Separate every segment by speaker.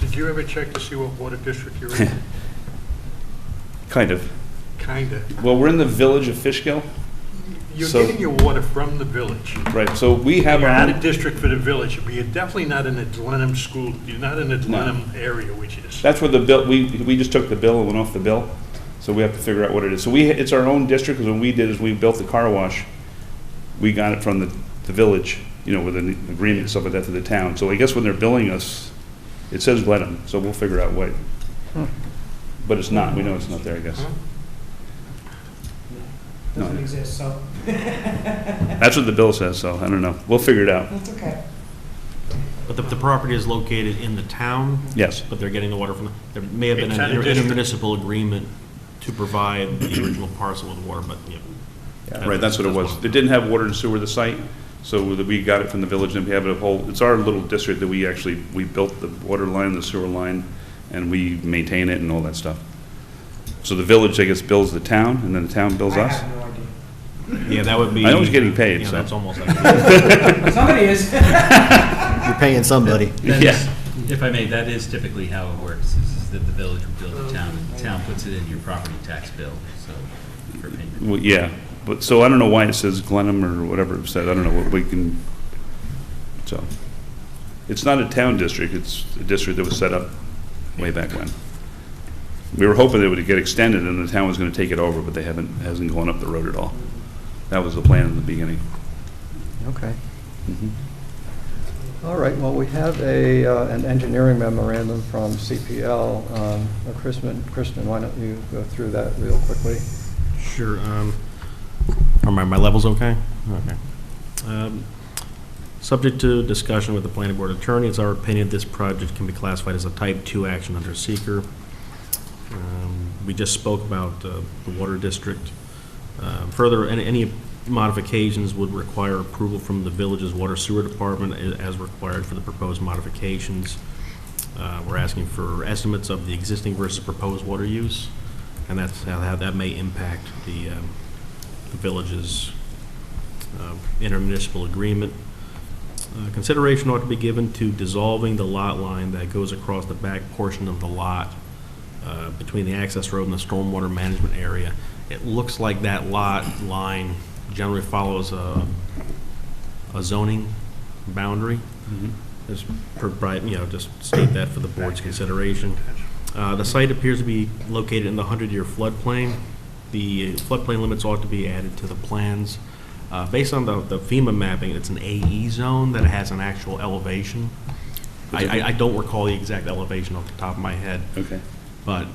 Speaker 1: Do you ever check to see what water district you're in?
Speaker 2: Kind of.
Speaker 1: Kinda.
Speaker 2: Well, we're in the village of Fishkill,
Speaker 1: You're
Speaker 2: So-
Speaker 1: getting your water from the village.
Speaker 2: right, so we have.
Speaker 1: You're
Speaker 2: our
Speaker 1: out
Speaker 2: own-
Speaker 1: of district for the village, but you're definitely not in the Glenham school, you're not in the Glenham area, which is,
Speaker 2: That's where the bill, we, we just took the bill and went off the bill, so we have to figure out what it is. So we, it's our own district, because what we did is we built the car wash. We got it from the, the village, you know, with an agreement and stuff like that to the town. So I guess when they're billing us, it says Glenham, so we'll figure out what. But it's not, we know it's not there, I guess.
Speaker 1: Huh?
Speaker 2: No,
Speaker 3: Doesn't exist, so
Speaker 2: That's what the bill says, so I don't know. We'll figure it out,
Speaker 3: that's okay.
Speaker 4: But the, the property is located in the town,
Speaker 2: yes.
Speaker 4: but they're getting the water from, there may have been
Speaker 1: It's
Speaker 4: an
Speaker 1: under
Speaker 4: inter-
Speaker 1: district.
Speaker 4: intermunicipal agreement to provide the original parcel with water, but, yeah.
Speaker 2: Right, that's what it was. It didn't have water and sewer, the site, so that we got it from the village, and we have a whole, it's our little district that we actually, we built the water line, the sewer line, and we maintain it and all that stuff. So the village, I guess, bills the town, and then the town bills
Speaker 3: I
Speaker 2: us?
Speaker 3: have no idea.
Speaker 4: Yeah, that would be.
Speaker 2: I know he's getting paid,
Speaker 4: Yeah,
Speaker 2: so.
Speaker 4: that's almost like.
Speaker 3: Somebody is.
Speaker 5: You're paying somebody.
Speaker 6: That
Speaker 2: Yeah.
Speaker 6: is- If I may, that is typically how it works, is is that the village will build the town, and the town puts it in your property tax bill, so, for payment.
Speaker 2: Well, yeah, but, so I don't know why it says Glenham or whatever it said, I don't know what we can, so. It's not a town district, it's a district that was set up way back when. We were hoping that it would get extended and the town was gonna take it over, but they haven't, hasn't gone up the road at all. That was the plan in the beginning.
Speaker 7: Okay.
Speaker 4: Mm-hmm.
Speaker 7: All right, well, we have a, uh, an engineering memorandum from CPL. Um, uh, Kristen, Kristen, why don't you go through that real quickly?
Speaker 4: Sure. um, Are my, my levels okay? Okay. Um, Subject to discussion with the planning board attorney, it's our opinion this project can be classified as a type two action under seeker. Um, We just spoke about uh, the water district. Uh, Further, any, any modifications would require approval from the village's water sewer department a- as required for the proposed modifications. Uh, We're asking for estimates of the existing versus proposed water use, and that's how how that may impact the um, the village's um, intermunicipal agreement. Uh, Consideration ought to be given to dissolving the lot line that goes across the back portion of the lot uh, between the access road and the stormwater management area. It looks like that lot line generally follows a a zoning boundary. Just provide, you know, just state that for the board's consideration. Uh, The site appears to be located in the 100-year floodplain. The floodplain limits ought to be added to the plans. Uh, Based on the the FEMA mapping, it's an AE zone that has an actual elevation. I I- I don't recall the exact elevation off the top of my head,
Speaker 2: Okay.
Speaker 4: but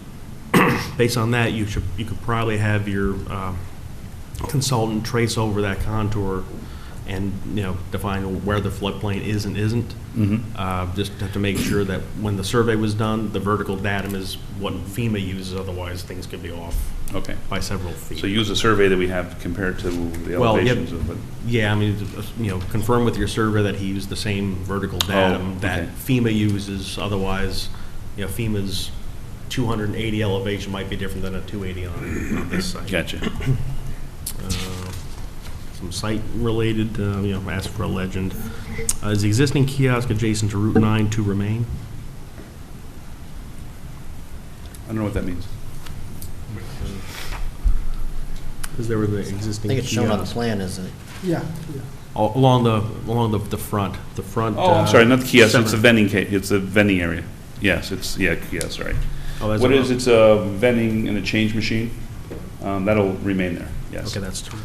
Speaker 4: based on that, you should, you could probably have your um, consultant trace over that contour and, you know, define where the floodplain is and isn't. Uh, Just to- to make sure that when the survey was done, the vertical datum is what FEMA uses, otherwise things could be off
Speaker 2: Okay.
Speaker 4: by several feet.
Speaker 2: So use the survey that we have compared to the
Speaker 4: Well, yep.
Speaker 2: elevations of it.
Speaker 4: Yeah, I mean, uh, you know, confirm with your survey that he used the same vertical datum that
Speaker 2: Oh, okay.
Speaker 4: FEMA uses, otherwise, you know, FEMA's 280 elevation might be different than a 280 on on this site.
Speaker 2: Gotcha.
Speaker 4: Some site-related, uh, you know, ask for a legend. Uh, Is the existing kiosk adjacent to Route 9 to remain?
Speaker 2: I don't know what that means.
Speaker 4: Is there the existing kiosk?
Speaker 5: I think it's shown on the plan, isn't it?
Speaker 3: Yeah.
Speaker 4: Al- Along the, along the the front, the front. uh,
Speaker 2: Oh, I'm sorry, not the kiosk, it's
Speaker 4: the
Speaker 2: a vending ca, it's a vending area. Yes, it's, yeah, yes, right.
Speaker 4: Oh, that's
Speaker 2: What
Speaker 4: a-
Speaker 2: is, it's a vending and a change machine, um, that'll remain there, yes.
Speaker 4: Okay, that's true.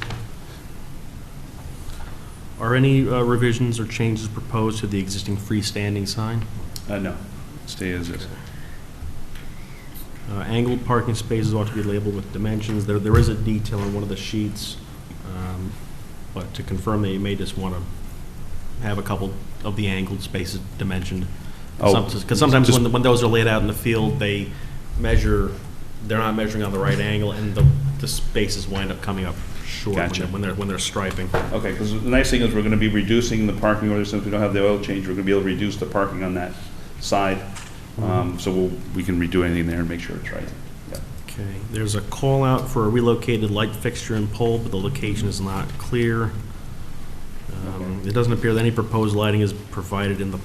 Speaker 4: Are any uh, revisions or changes proposed to the existing freestanding sign?
Speaker 2: Uh, no, stay as is.
Speaker 4: Uh, Angled parking spaces ought to be labeled with dimensions. There, there is a detail on one of the sheets, um, but to confirm that you may just want to have a couple of the angled spaces dimensioned.
Speaker 2: Oh,
Speaker 4: Because sometimes
Speaker 2: just-
Speaker 4: when, when those are laid out in the field, they measure, they're not measuring on the right angle, and the, the spaces wind up coming up short when
Speaker 2: Gotcha.
Speaker 4: they're- when they're, when they're striping.
Speaker 2: Okay, because the nice thing is we're gonna be reducing the parking, or since we don't have the oil change, we're gonna be able to reduce the parking on that side.
Speaker 4: Mm-hmm.
Speaker 2: Um, so we'll, we can redo anything there and make sure it's right. Yeah.
Speaker 4: Okay, there's a call out for a relocated light fixture and pole, but the location is not clear. Um, It doesn't appear that any proposed lighting is provided in the